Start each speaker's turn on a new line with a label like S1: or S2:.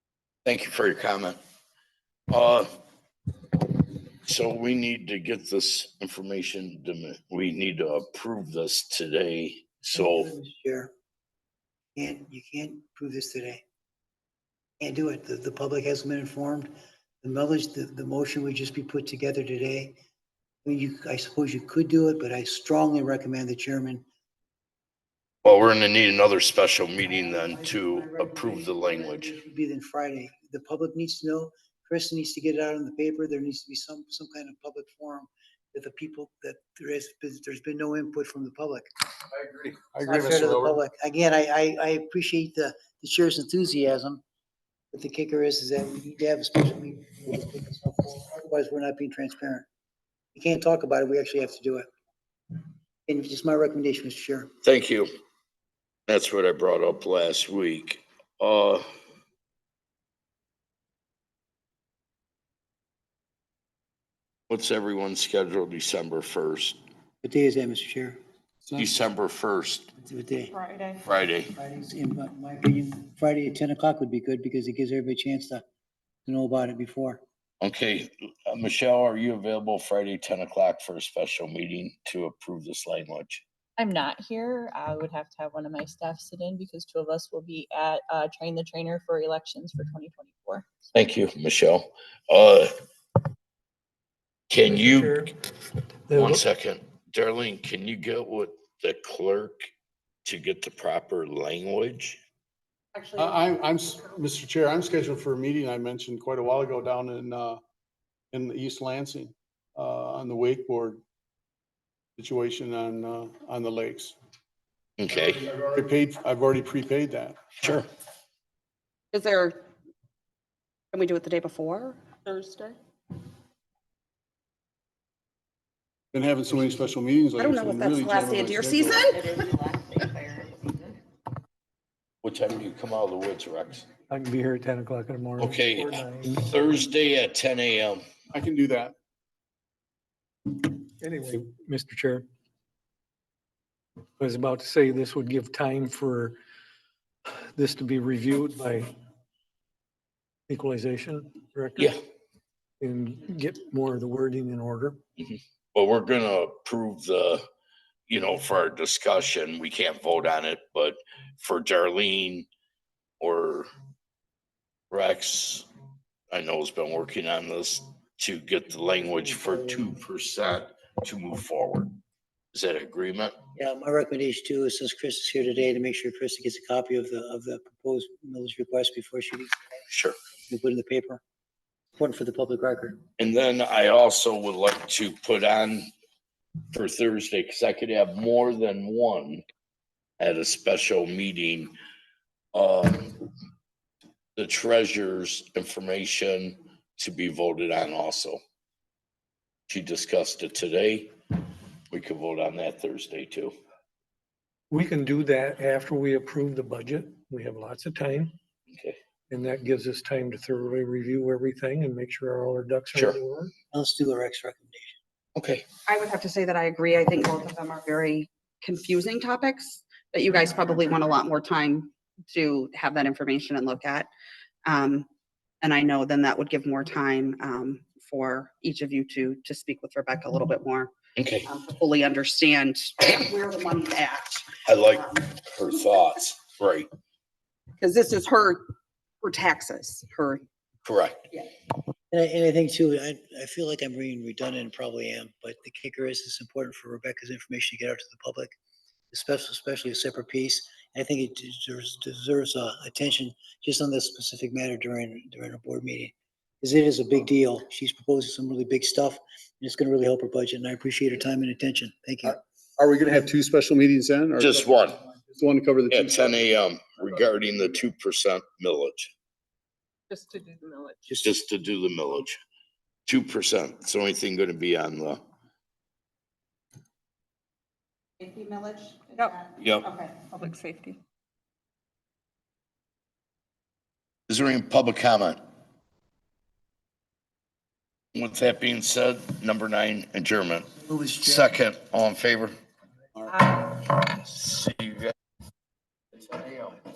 S1: Thank you for your comment. Uh, So we need to get this information, to- we need to approve this today. So
S2: Sure. Can't, you can't prove this today. Can't do it. The, the public hasn't been informed. The millage, the, the motion would just be put together today. I mean, you, I suppose you could do it, but I strongly recommend the chairman.
S1: Well, we're gonna need another special meeting then to approve the language.
S2: It should Be then Friday. The public needs to know. Chris needs to get it out in the paper. There needs to be some, some kind of public forum that the people, that there has, been- there's been no input from the public.
S3: I agree. I
S2: It's
S3: agree,
S2: not fair to the
S3: Mr. Wilbur.
S2: public. Again, I, I, I appreciate the, the chair's enthusiasm, but the kicker is, is that we need to have a special meeting. Otherwise, we're not being transparent. We can't talk about it. We actually have to do it. And it's just my recommendation, Mr. Chair.
S1: Thank you. That's what I brought up last week. Uh, What's everyone's schedule December first?
S2: What day is that, Mr. Chair?
S1: December first,
S2: What day?
S4: Friday.
S1: Friday.
S2: Friday's, in my- my opinion, Friday at ten o'clock would be good because it gives everybody a chance to, to know about it before.
S1: Okay, uh, Michelle, are you available Friday, ten o'clock for a special meeting to approve this language?
S4: I'm not here. I would have to have one of my staff sit in because two of us will be at uh, Train the Trainer for elections for 2024.
S1: Thank you, Michelle. Uh, Can you,
S5: Chair,
S1: one
S5: The,
S1: second, Darlene, can you get with the clerk to get the proper language?
S3: I, I- I'm, s- Mr. Chair, I'm scheduled for a meeting I mentioned quite a while ago down in, uh, in the East Lansing, uh, on the wakeboard situation on, uh, on the lakes.
S1: Okay,
S3: I've already paid, I've already prepaid that.
S1: sure.
S6: Is there, can we do it the day before? Thursday?
S3: Been having so many special meetings.
S6: I don't know if that's the last day of deer season.
S1: What time do you come out of the woods, Rex?
S5: I can be here at 10 o'clock in the morning.
S1: Okay.
S5: or nine,
S1: Thursday at ten AM.
S3: I can do that.
S5: Anyway, Mr. Chair. I was about to say this would give time for this to be reviewed by equalization director.
S1: Yeah,
S5: And get more of the wording in order.
S1: well, we're gonna approve the, you know, for our discussion, we can't vote on it, but for Darlene or Rex, I know has been working on this to get the language for two percent to move forward. Is that agreement?
S2: Yeah, my recommendation too is since Chris is here today, to make sure Chris gets a copy of the, of the proposed millage request before she gets
S1: Sure.
S2: we put in the paper. Important for the public record.
S1: And then I also would like to put on for Thursday, because I could have more than one at a special meeting. Um, the treasurer's information to be voted on also. She discussed it today. We could vote on that Thursday too.
S5: We can do that after we approve the budget. We have lots of time.
S1: Okay.
S5: And that gives us time to thoroughly review everything and make sure all our ducks
S1: Sure.
S5: are in order.
S2: Let's do a Rex recommendation.
S1: Okay.
S6: I would have to say that I agree. I think both of them are very confusing topics that you guys probably want a lot more time to have that information and look at. Um, And I know then that would give more time um, for each of you to, to speak with Rebecca a little bit more,
S1: Okay.
S6: um, to fully understand where the money's at.
S1: I like her thoughts. Right.
S6: Because this is her, her taxes, her
S1: Correct.
S2: And I, and I think too, I, I feel like I'm being redundant and probably am, but the kicker is it's important for Rebecca's information to get out to the public, especially, especially a separate piece. I think it deserves, deserves uh, attention just on this specific matter during, during a board meeting. Because it is a big deal. She's proposing some really big stuff and it's going to really help her budget and I appreciate her time and attention. Thank you.
S3: Are we gonna have two special meetings then? or-
S1: Just one.
S3: Just one to cover the. two
S1: At ten AM regarding the two percent millage.
S4: Just to do the millage.
S1: It's just to do the millage. Two percent, it's the only thing gonna be on the,
S7: Safety millage? Is
S6: Yep.
S7: that-
S1: yep.
S7: Okay.
S6: public safety.
S1: Is there any public comment? With that being said, number nine, adjournment.
S2: Who was Jack?
S1: Second, all in favor? See you guys.